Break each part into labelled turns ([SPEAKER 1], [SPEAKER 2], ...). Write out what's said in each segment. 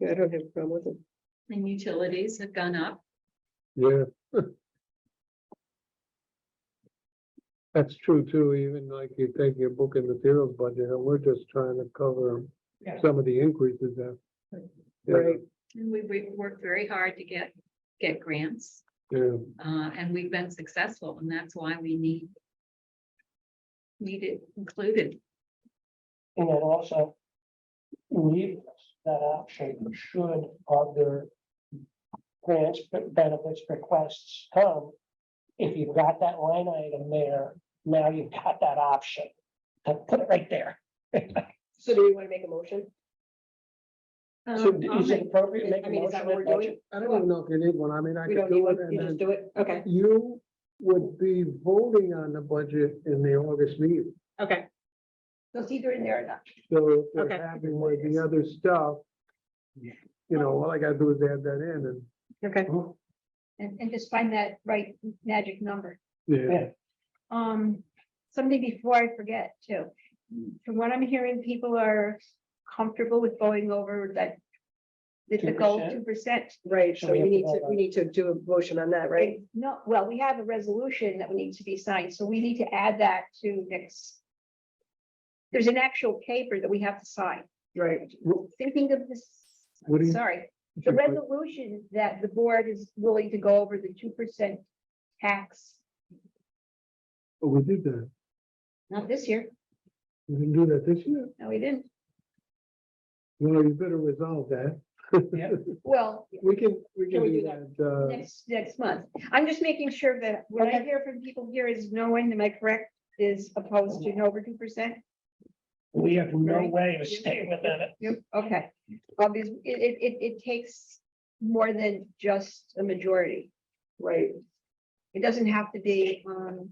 [SPEAKER 1] Yeah, I don't have a problem with it.
[SPEAKER 2] and utilities have gone up.
[SPEAKER 3] Yeah. That's true too, even like you take your book and materials budget, and we're just trying to cover
[SPEAKER 1] Yeah.
[SPEAKER 3] some of the increases there. Yeah,
[SPEAKER 1] Right,
[SPEAKER 2] And we, we've worked very hard to get, get grants,
[SPEAKER 3] Yeah,
[SPEAKER 2] uh, and we've been successful, and that's why we need. Need it included.
[SPEAKER 4] And it also leaves us that option should other grants, be- benefits, requests come. If you've got that line item there, now you've got that option to put it right there.
[SPEAKER 1] so do we want to make a motion?
[SPEAKER 4] So
[SPEAKER 2] Um, I'll
[SPEAKER 4] is it
[SPEAKER 2] make-
[SPEAKER 4] appropriate to make
[SPEAKER 1] I
[SPEAKER 4] a
[SPEAKER 1] mean, is
[SPEAKER 4] motion
[SPEAKER 1] that what we're
[SPEAKER 4] with
[SPEAKER 1] doing?
[SPEAKER 4] budget?
[SPEAKER 3] I don't even know if you need one, I mean, I
[SPEAKER 1] We
[SPEAKER 3] could
[SPEAKER 1] don't need
[SPEAKER 3] do it
[SPEAKER 1] one,
[SPEAKER 3] and
[SPEAKER 1] you just
[SPEAKER 3] then
[SPEAKER 1] do it, okay,
[SPEAKER 3] you would be voting on the budget in the August meeting.
[SPEAKER 1] okay. So it's either in there or not.
[SPEAKER 3] So if
[SPEAKER 1] Okay.
[SPEAKER 3] they're happy with the other stuff, you know, all I gotta do is add that in and.
[SPEAKER 1] Okay.
[SPEAKER 5] and, and just find that right magic number.
[SPEAKER 3] Yeah,
[SPEAKER 5] Um, something before I forget too. From what I'm hearing, people are comfortable with going over that. The the goal
[SPEAKER 4] 2%?
[SPEAKER 5] two percent.
[SPEAKER 1] Right,
[SPEAKER 4] So
[SPEAKER 1] so
[SPEAKER 4] we
[SPEAKER 1] we
[SPEAKER 4] have to
[SPEAKER 1] need to,
[SPEAKER 4] vote on
[SPEAKER 1] we
[SPEAKER 4] it.
[SPEAKER 1] need to do a motion on that, right?
[SPEAKER 5] No, well, we have a resolution that we need to be signed, so we need to add that to next. There's an actual paper that we have to sign.
[SPEAKER 1] Right.
[SPEAKER 5] Thinking of this,
[SPEAKER 3] What do you-
[SPEAKER 5] sorry, the resolution that the board is willing to go over the two percent tax,
[SPEAKER 3] Oh, we did that,
[SPEAKER 5] not this year,
[SPEAKER 3] we didn't do that this year,
[SPEAKER 5] no, we didn't.
[SPEAKER 3] well, you better resolve that.
[SPEAKER 4] Yeah.
[SPEAKER 5] Well,
[SPEAKER 3] We can, we
[SPEAKER 1] Can
[SPEAKER 3] can
[SPEAKER 1] we
[SPEAKER 3] do
[SPEAKER 1] do
[SPEAKER 3] that, uh,
[SPEAKER 5] next, next month. I'm just making sure that what I
[SPEAKER 1] Okay.
[SPEAKER 5] hear from people here is no one, am I correct, is opposed to an over two percent?
[SPEAKER 4] We have no way of staying within it.
[SPEAKER 5] Okay, obviously, it, it, it, it takes more than just a majority.
[SPEAKER 1] Right,
[SPEAKER 5] It doesn't have to be, um,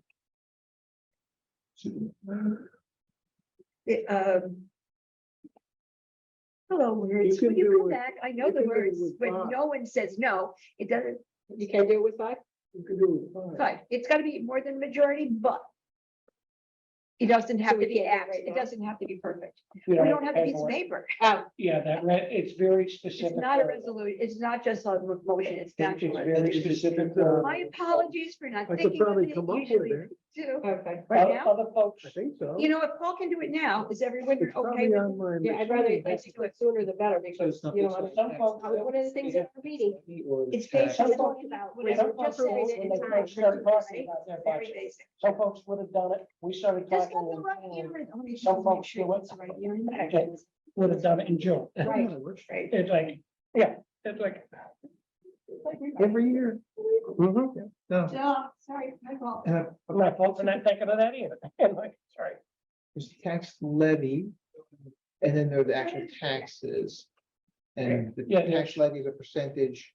[SPEAKER 5] it, um, hello, words,
[SPEAKER 3] can
[SPEAKER 5] will you
[SPEAKER 3] do
[SPEAKER 5] come
[SPEAKER 3] it-
[SPEAKER 5] back? I know
[SPEAKER 3] you
[SPEAKER 5] the
[SPEAKER 3] can do it
[SPEAKER 5] words,
[SPEAKER 3] with
[SPEAKER 5] but
[SPEAKER 3] five.
[SPEAKER 5] no one says no. It doesn't,
[SPEAKER 1] you can do it with five?
[SPEAKER 3] you can do it. fine.
[SPEAKER 5] But it's gotta be more than majority, but. It doesn't have
[SPEAKER 1] we
[SPEAKER 5] to be
[SPEAKER 1] can't do it
[SPEAKER 5] ax,
[SPEAKER 1] right
[SPEAKER 5] it
[SPEAKER 1] now?
[SPEAKER 5] doesn't have to be perfect.
[SPEAKER 4] You
[SPEAKER 5] We don't have a piece
[SPEAKER 4] paperwork.
[SPEAKER 5] of paper.
[SPEAKER 1] Oh,
[SPEAKER 4] Yeah, that, re- it's very
[SPEAKER 5] It's
[SPEAKER 4] specific.
[SPEAKER 5] not a
[SPEAKER 4] for-
[SPEAKER 5] resolution, it's not just a motion, it's
[SPEAKER 4] It's
[SPEAKER 5] actual.
[SPEAKER 4] very specific.
[SPEAKER 3] Uh,
[SPEAKER 5] My apologies for not
[SPEAKER 3] I could
[SPEAKER 5] thinking of it
[SPEAKER 3] probably come up with
[SPEAKER 5] usually
[SPEAKER 3] it,
[SPEAKER 5] do.
[SPEAKER 1] okay.
[SPEAKER 5] Right
[SPEAKER 4] Other-
[SPEAKER 5] now?
[SPEAKER 4] Other folks,
[SPEAKER 3] I think so.
[SPEAKER 5] You know, if Paul can do it now, is everyone
[SPEAKER 3] It's probably
[SPEAKER 5] okay with
[SPEAKER 3] on my
[SPEAKER 1] Yeah, I'd rather, I'd like to do it sooner the better because,
[SPEAKER 4] So it's
[SPEAKER 1] you know,
[SPEAKER 4] nothing
[SPEAKER 1] I'm-
[SPEAKER 4] special.
[SPEAKER 1] I was- one of the things that we're reading,
[SPEAKER 5] It's based
[SPEAKER 4] Some
[SPEAKER 5] on
[SPEAKER 4] folks-
[SPEAKER 5] talking about
[SPEAKER 4] Wait, some
[SPEAKER 5] whatever,
[SPEAKER 4] folks
[SPEAKER 5] Oh, just say
[SPEAKER 4] rules
[SPEAKER 5] it
[SPEAKER 4] when
[SPEAKER 5] in
[SPEAKER 4] they
[SPEAKER 5] time.
[SPEAKER 4] first started talking
[SPEAKER 5] right?
[SPEAKER 4] about their
[SPEAKER 5] Very
[SPEAKER 4] budget.
[SPEAKER 5] basic.
[SPEAKER 4] Some folks would have done it. We started
[SPEAKER 5] Just
[SPEAKER 4] talking.
[SPEAKER 5] let the
[SPEAKER 4] in
[SPEAKER 5] right
[SPEAKER 4] June,
[SPEAKER 5] ear and- let me
[SPEAKER 4] Some
[SPEAKER 5] just
[SPEAKER 4] folks
[SPEAKER 5] make sure
[SPEAKER 4] do it.
[SPEAKER 5] it's the right ear and back.
[SPEAKER 4] Okay. Would have done it in June.
[SPEAKER 5] Right,
[SPEAKER 1] right?
[SPEAKER 4] It's like, yeah, it's like.
[SPEAKER 3] Every year. Mhm. No.
[SPEAKER 5] Duh, Oh, sorry, my fault.
[SPEAKER 4] My folks are not thinking of that either. And like, sorry.
[SPEAKER 6] there's tax levy, and then there are the actual taxes. And the
[SPEAKER 4] Yeah, yeah.
[SPEAKER 6] tax levy is a percentage.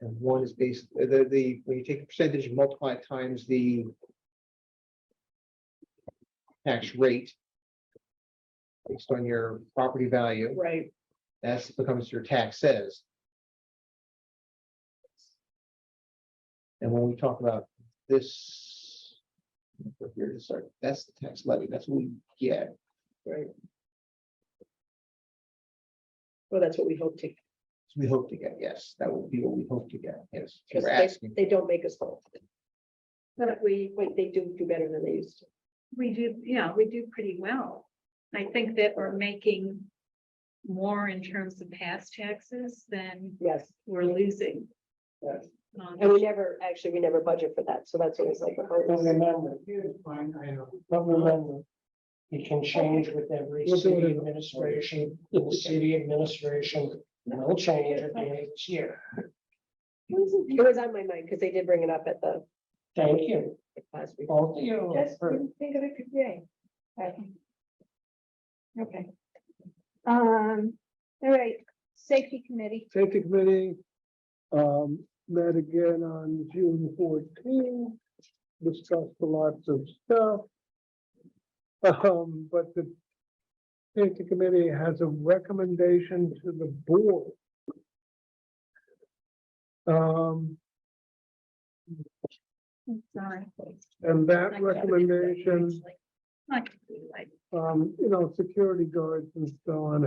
[SPEAKER 6] And one is based, the, the, when you take the percentage, and multiply it times the tax rate based on your property value,
[SPEAKER 1] Right,
[SPEAKER 6] that's becomes your tax says. And when we talk about this. we're Here to start, that's the tax levy, that's what we get,
[SPEAKER 1] right. Well, that's what we hope to,
[SPEAKER 6] we hope to get, yes, that will be what we hope to get, yes, if
[SPEAKER 1] because
[SPEAKER 6] we're
[SPEAKER 1] they,
[SPEAKER 6] asking.
[SPEAKER 1] they don't make us whole. But we, wait, they do do better than they used to.
[SPEAKER 2] We do, yeah, we do pretty well. I think that we're making more in terms of past taxes than
[SPEAKER 1] Yes,
[SPEAKER 2] we're losing.
[SPEAKER 4] Yes.
[SPEAKER 2] Um,
[SPEAKER 1] and we never, actually, we never budget for that, so that's always like a
[SPEAKER 4] But
[SPEAKER 1] bonus.
[SPEAKER 4] remember, but remember, it can change with every
[SPEAKER 3] We'll do it
[SPEAKER 4] city
[SPEAKER 3] in-
[SPEAKER 4] administration, the city administration will change at the end of this year.
[SPEAKER 1] It was on my mind because they did bring it up at the
[SPEAKER 4] Thank you,
[SPEAKER 1] last week.
[SPEAKER 4] both of you.
[SPEAKER 5] Just
[SPEAKER 4] for-
[SPEAKER 5] didn't think of it today. Right. Okay. Um, all right, safety committee,
[SPEAKER 3] Safety Committee, um, met again on June fourteenth, discussed lots of stuff. Um, but the Safety Committee has a recommendation to the board. Um,
[SPEAKER 2] sorry.
[SPEAKER 3] and
[SPEAKER 2] I
[SPEAKER 3] that
[SPEAKER 2] couldn't-
[SPEAKER 3] recommendation
[SPEAKER 2] Not gonna be like
[SPEAKER 3] um, you know, security guards and so on